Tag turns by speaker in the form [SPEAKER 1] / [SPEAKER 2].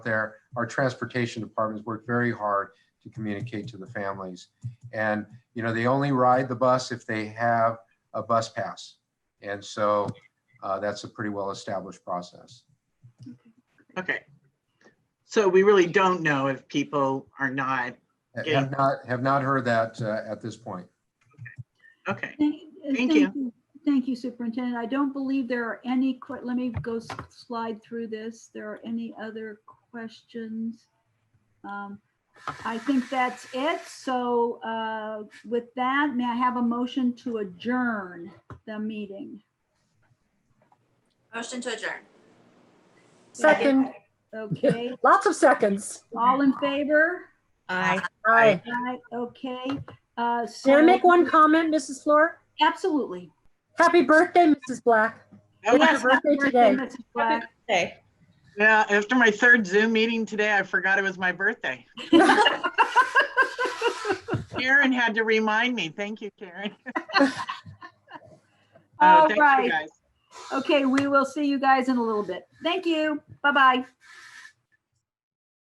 [SPEAKER 1] there, our transportation departments work very hard to communicate to the families. And, you know, they only ride the bus if they have a bus pass. And so uh, that's a pretty well-established process.
[SPEAKER 2] Okay. So we really don't know if people are not, Yeah.
[SPEAKER 1] Have not, have not heard that uh, at this point.
[SPEAKER 2] okay,
[SPEAKER 3] Thank uh,
[SPEAKER 2] Thank
[SPEAKER 3] thank
[SPEAKER 2] you.
[SPEAKER 3] you. Thank you, Superintendent. I don't believe there are any, que- let me go s- slide through this. There are any other questions? Um, I think that's it. So uh, with that, may I have a motion to adjourn the meeting?
[SPEAKER 4] Motion to adjourn.
[SPEAKER 5] Second,
[SPEAKER 3] Okay,
[SPEAKER 5] lots of seconds.
[SPEAKER 3] all in favor?
[SPEAKER 4] Aye.
[SPEAKER 5] Aye.
[SPEAKER 3] Aye, okay. uh,
[SPEAKER 5] Can I
[SPEAKER 3] so-
[SPEAKER 5] make one comment, Mrs. Flor?
[SPEAKER 3] Absolutely.
[SPEAKER 5] Happy birthday, Mrs. Black.
[SPEAKER 2] Oh,
[SPEAKER 5] Yes.
[SPEAKER 3] Happy
[SPEAKER 5] birthday today.
[SPEAKER 3] Mrs. Black.
[SPEAKER 2] yeah, uh, after my third Zoom meeting today, I forgot it was my birthday. Karen had to remind me. Thank you, Karen. Uh,
[SPEAKER 3] All
[SPEAKER 2] thank you
[SPEAKER 3] right.
[SPEAKER 2] guys.
[SPEAKER 3] Okay, we will see you guys in a little bit. Thank you. Bye-bye.